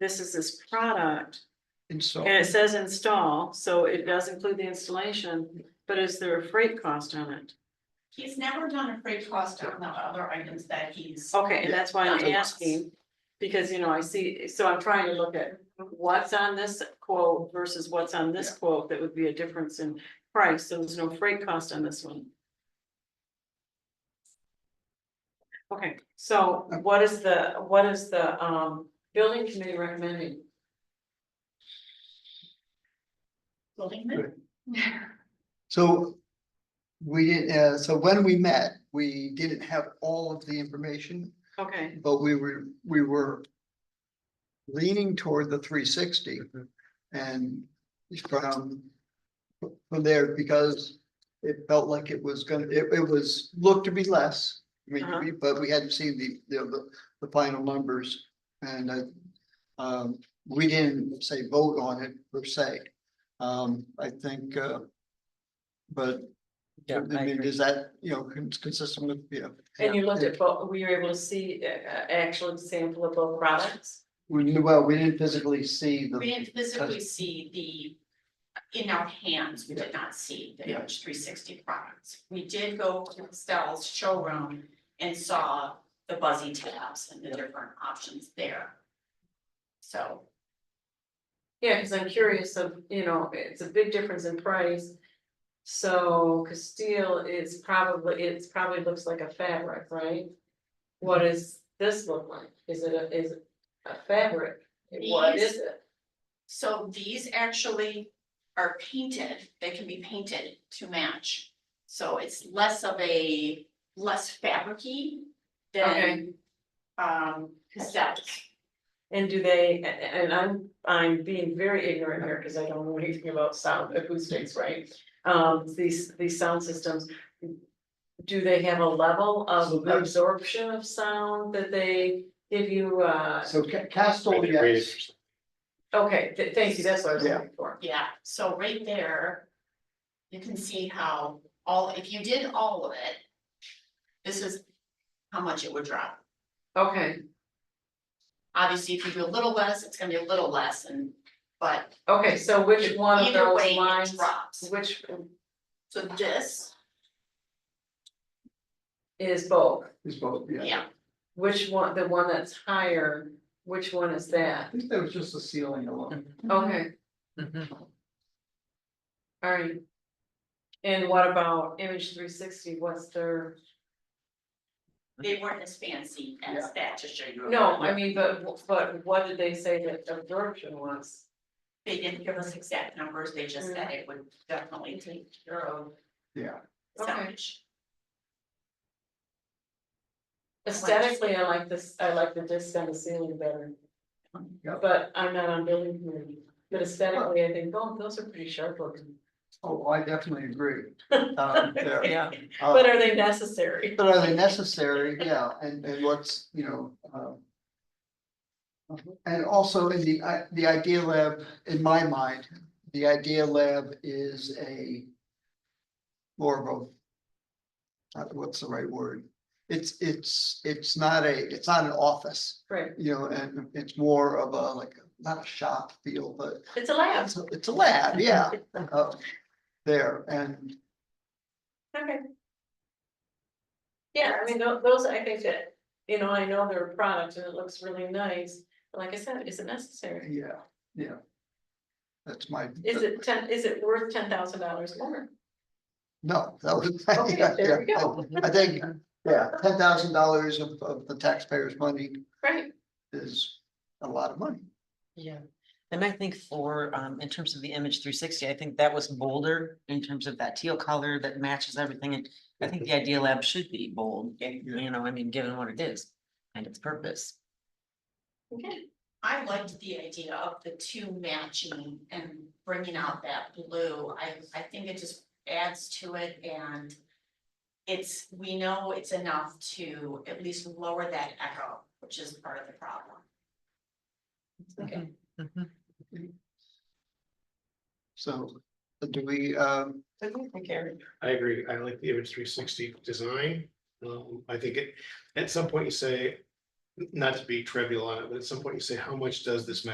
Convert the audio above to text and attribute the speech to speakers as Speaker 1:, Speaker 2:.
Speaker 1: this is this product,
Speaker 2: And so,
Speaker 1: and it says install, so it does include the installation, but is there a freight cost on it?
Speaker 3: He's never done a freight cost on the other items that he's.
Speaker 1: Okay, and that's why I'm asking, because, you know, I see, so I'm trying to look at what's on this quote versus what's on this quote, that would be a difference in price, so there's no freight cost on this one. Okay, so what is the, what is the, um, building committee recommending?
Speaker 3: Building it.
Speaker 2: so we didn't, uh, so when we met, we didn't have all of the information,
Speaker 1: Okay,
Speaker 2: but we were, we were leaning toward the three sixty
Speaker 4: Mm-hmm.
Speaker 2: and from from there, because it felt like it was gonna, it, it was, looked to be less. I mean,
Speaker 1: Uh-huh.
Speaker 2: we- but we hadn't seen the, the, the- the final numbers and, uh, um, we didn't say vote on it per se. Um, I think, uh, but I
Speaker 4: Yeah, I
Speaker 2: mean,
Speaker 4: agree.
Speaker 2: is that, you know, cons- consistent with, you know,
Speaker 1: and you looked at both, were you able to see a, a actual example of both products?
Speaker 2: we knew, well, we didn't physically see
Speaker 3: We
Speaker 2: the,
Speaker 3: didn't physically see the, in our hands, we did not see the
Speaker 2: Yeah.
Speaker 3: three sixty products. We did go to Stell's showroom and saw the buzzy tabs and the
Speaker 2: Yeah.
Speaker 3: different options there. So,
Speaker 1: Yeah, cause I'm curious of, you know, it's a big difference in price. So Castile is probably, it's probably looks like a fabric, right? What does this look like? Is it a, is it a fabric? What is it?
Speaker 3: so these actually are painted, they can be painted to match. So it's less of a, less fabricy than, um, Castell's.
Speaker 1: And do they, a- a- and I'm, I'm being very ignorant here, cause I don't know anything about sound acoustics, right? Um, these, these sound systems. Do they have a level
Speaker 2: So
Speaker 1: of
Speaker 2: there's-
Speaker 1: absorption of sound that they give you, uh?
Speaker 2: so Ca- Castle,
Speaker 4: Maybe
Speaker 2: yes.
Speaker 4: raise or something.
Speaker 1: Okay, th- thank you, that's what I was
Speaker 2: Yeah.
Speaker 1: looking for.
Speaker 3: Yeah, so right there. You can see how all, if you did all of it. This is how much it would drop.
Speaker 1: Okay,
Speaker 3: Obviously, if you do a little less, it's gonna be a little less and, but
Speaker 1: okay, so which one of
Speaker 3: either way,
Speaker 1: those
Speaker 3: it
Speaker 1: lines,
Speaker 3: drops.
Speaker 1: which
Speaker 3: So this,
Speaker 1: is both?
Speaker 2: Is both, yeah.
Speaker 3: yeah,
Speaker 1: Which one, the one that's higher, which one is that?
Speaker 2: I think that was just the ceiling alone.
Speaker 1: Okay,
Speaker 4: Mhm.
Speaker 1: alright. And what about image three sixty, what's their,
Speaker 3: they weren't as fancy as that, just showing you.
Speaker 1: no, I mean, but but what did they say that absorption was?
Speaker 3: They didn't give us exact numbers, they just said it would definitely take care of
Speaker 2: Yeah,
Speaker 1: Okay.
Speaker 3: sound.
Speaker 1: Aesthetically, I like this, I like the disc on the ceiling better,
Speaker 2: yeah,
Speaker 1: but I'm not on building committee. But aesthetically, I think, oh, those are pretty sharp looking,
Speaker 2: oh, I definitely agree. Um, there,
Speaker 4: Yeah,
Speaker 2: uh,
Speaker 1: but are they necessary?
Speaker 2: But are they necessary? Yeah, and, and what's, you know, um. And also in the, I- the idea lab, in my mind, the idea lab is a. More of a. uh, What's the right word? It's, it's, it's not a, it's not an office,
Speaker 1: Right,
Speaker 2: you know, and it's more of a, like, not a shop feel, but
Speaker 1: it's a lab.
Speaker 2: It's a- It's a lab, yeah, uh, there, and
Speaker 1: Okay. Yeah, I mean, tho- those, I think that, you know, I know they're a product and it looks really nice, but like I said, is it necessary?
Speaker 2: yeah, yeah. That's my.
Speaker 1: Is it ten, is it worth ten thousand dollars more?
Speaker 2: No, that was. oh,
Speaker 1: Okay, there we go.
Speaker 2: I think, yeah, ten thousand dollars of, of the taxpayers' money
Speaker 1: Right,
Speaker 2: is a lot of money.
Speaker 4: yeah. And I think for, um, in terms of the image three sixty, I think that was bolder in terms of that teal color that matches everything. And I think the Idea Lab should be bold, eh, you know, I mean, given what it is and its purpose.
Speaker 1: okay,
Speaker 3: I liked the idea of the two matching and bringing out that blue. I, I think it just adds to it and it's, we know it's enough to at least lower that echo, which is part of the problem.
Speaker 1: okay.
Speaker 4: Mhm.
Speaker 2: So do we, um,
Speaker 5: I agree. I like the image three sixty design. Um, I think it, at some point you say, not to be trivial on it, but at some point you say, how much does this matter?